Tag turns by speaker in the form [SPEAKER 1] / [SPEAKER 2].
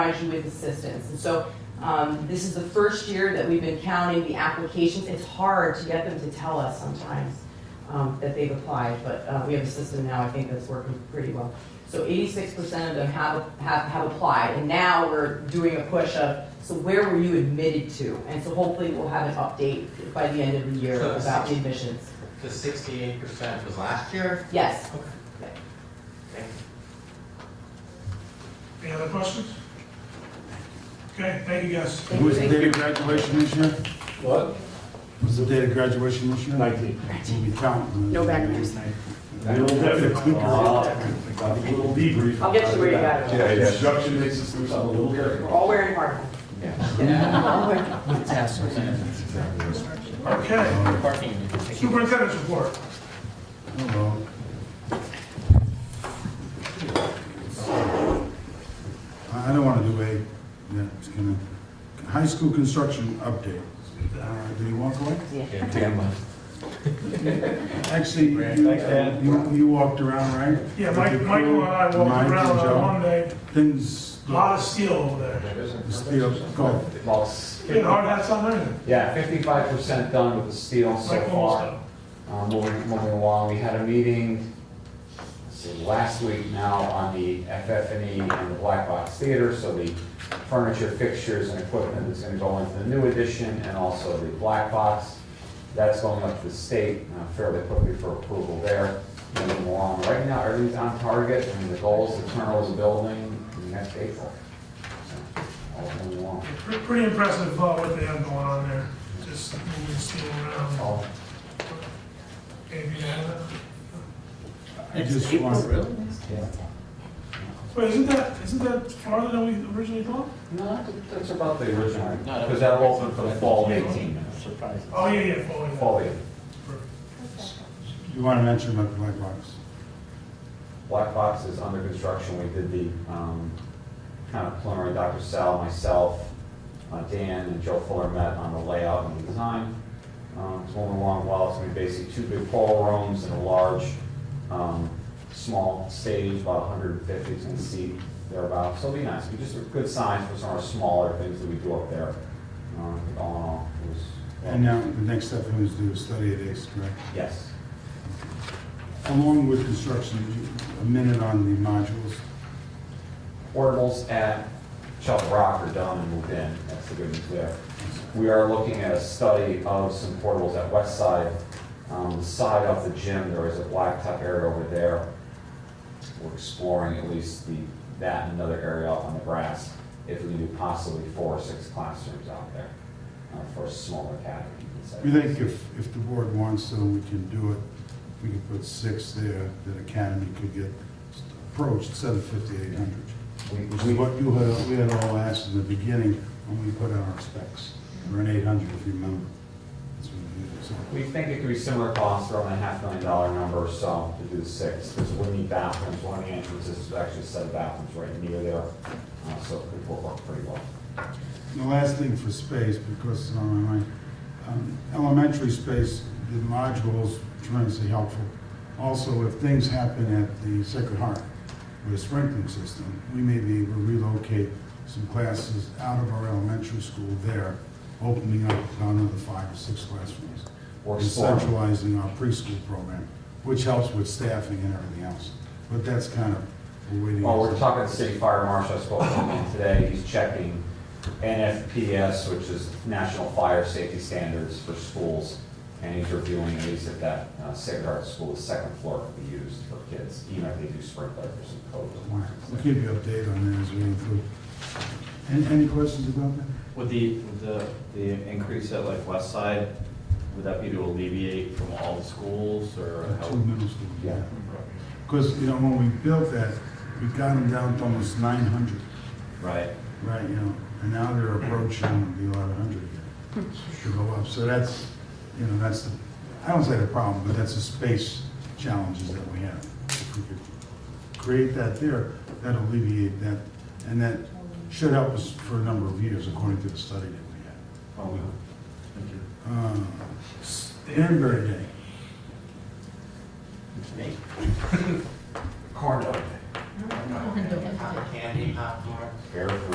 [SPEAKER 1] provides you with assistance. And so um, this is the first year that we've been counting the applications. It's hard to get them to tell us sometimes um, that they've applied, but uh, we have a system now, I think, that's working pretty well. So 86% of them have, have, have applied, and now we're doing a push of, so where were you admitted to? And so hopefully we'll have an update by the end of the year
[SPEAKER 2] So-
[SPEAKER 1] about the admissions.
[SPEAKER 2] The sixty-eight percent was last year?
[SPEAKER 1] Yes.
[SPEAKER 2] Okay. Thank you.
[SPEAKER 3] Any other questions? Okay, thank you guys.
[SPEAKER 1] Thank you.
[SPEAKER 4] Who's the date of graduation this year?
[SPEAKER 5] What?
[SPEAKER 4] What's the date of graduation this year?
[SPEAKER 5] Nineteen.
[SPEAKER 4] We count.
[SPEAKER 6] No background.
[SPEAKER 4] We'll definitely click
[SPEAKER 5] Got a little debrief.
[SPEAKER 1] I'll get you where you got it.
[SPEAKER 5] Yeah, yeah. Construction makes us do something a little different.
[SPEAKER 1] All wearing hard hats.
[SPEAKER 3] Okay. Superintendent's report.
[SPEAKER 4] Hello. I I don't want to do a, yeah, it's gonna, high school construction update. Uh, Did he walk away? Actually, you, uh,
[SPEAKER 5] Thanks, Dan.
[SPEAKER 4] you- you walked around, right?
[SPEAKER 3] Yeah,
[SPEAKER 4] With
[SPEAKER 3] Mike,
[SPEAKER 4] your
[SPEAKER 3] Michael and I
[SPEAKER 4] crew,
[SPEAKER 3] walked
[SPEAKER 4] Mike and
[SPEAKER 3] around
[SPEAKER 4] Joe.
[SPEAKER 3] on Monday,
[SPEAKER 4] Things,
[SPEAKER 3] a lot of steel over there.
[SPEAKER 4] steel, go.
[SPEAKER 3] We had hard hats on there.
[SPEAKER 7] Yeah, fifty-five percent done with the steel so
[SPEAKER 3] Mike almost
[SPEAKER 7] far.
[SPEAKER 3] done.
[SPEAKER 7] Um, Moving moving along, we had a meeting, let's see, last week now on the FF&E and the Black Box Theater. So the furniture, fixtures, and equipment that's going to go into the new addition and also the Black Box. That's going up to the state uh, fairly quickly for approval there. Moving along, right now, everything's on target, and the goal is to turn over the building next April. So, All moving along.
[SPEAKER 3] Pre- Pretty impressive uh, what they have going on there, just moving steel around.
[SPEAKER 7] All
[SPEAKER 3] Anything to add?
[SPEAKER 4] I just want,
[SPEAKER 3] Wait, isn't that, isn't that farther than we originally thought?
[SPEAKER 7] No, that- that's about the original, because that opened for the fall of 18.
[SPEAKER 3] Oh, yeah, yeah, falling.
[SPEAKER 7] Fall of 18.
[SPEAKER 4] you want to mention about the black box?
[SPEAKER 7] Black Box is under construction, we did the um, kind of preliminary, Dr. Sal, myself, uh, Dan, and Joe Fuller met on the layout and the design. Um, It's going along well, it's going to be basically two big ball rooms and a large, um, small stage, about 150 is going to seat thereabouts. So it'll be nice, we just, good signs for some of our smaller things that we do up there. Um, All in all, it was.
[SPEAKER 4] And uh, now, the next step is to study it, is correct?
[SPEAKER 7] Yes.
[SPEAKER 4] Along with construction, a minute on the modules.
[SPEAKER 7] portables at Chuck Rock are done and moved in, that's the good news there. We are looking at a study of some portables at West Side, um, the side of the gym, there is a blacktop area over there. We're exploring at least the, that and another area out on the grass, if we can do possibly four or six classrooms out there, uh, for a smaller academy. you could say.
[SPEAKER 4] We think if, if the board wants to, we can do it. We can put six there, that Academy could get approached, instead of 5,800.
[SPEAKER 7] We-
[SPEAKER 4] Which
[SPEAKER 7] we-
[SPEAKER 4] is what you had, we had all asked in the beginning when we put out our specs, or an 800 if you remember. That's what we did, so.
[SPEAKER 7] We think it could be similar costs, around a half million dollar number or so to do the six, because we need bathrooms, one of the entrances is actually a set of bathrooms right near there, uh, so it could work pretty well.
[SPEAKER 4] The last thing for space, because it's on my mind, um, elementary space, the modules tremendously helpful. Also, if things happen at the Sacred Heart with a sprinkling system, we may be able to relocate some classes out of our elementary school there, opening up another five or six classrooms.
[SPEAKER 7] Or
[SPEAKER 4] And
[SPEAKER 7] four.
[SPEAKER 4] centralizing our preschool program, which helps with staffing and everything else. But that's kind of, we're waiting.
[SPEAKER 7] Well, Oh, we're talking to the city fire marshal, I spoke to him today, he's checking NFPS, which is National Fire Safety Standards for schools, and he's reviewing at least at that uh, Sacred Heart School, the second floor could be used for kids, even if they do sprinkler for some
[SPEAKER 4] We'll
[SPEAKER 7] code.
[SPEAKER 4] keep you updated on that as we improve. Any, any questions about that?
[SPEAKER 8] Would the, would the, the increase at like West Side, would that be to alleviate from all the schools or how?
[SPEAKER 4] Two middle school.
[SPEAKER 7] Yeah.
[SPEAKER 4] Because, you know, when we built that, we got them down to almost nine hundred,
[SPEAKER 8] Right,
[SPEAKER 4] right, you know, and now they're
[SPEAKER 8] Mm-hmm.
[SPEAKER 4] approaching the eleven hundred again. Should go up, so that's, you know, that's the, I don't say the problem, but that's the space challenges that we have. If we could create that there, that will alleviate that, and that should help us for a number of years, according to the study that we had.
[SPEAKER 8] oh, we- thank you.
[SPEAKER 4] Uh, Danbury Uh, Day.
[SPEAKER 7] Corn dog,
[SPEAKER 2] Cotton Candy, popcorn.
[SPEAKER 7] Fair.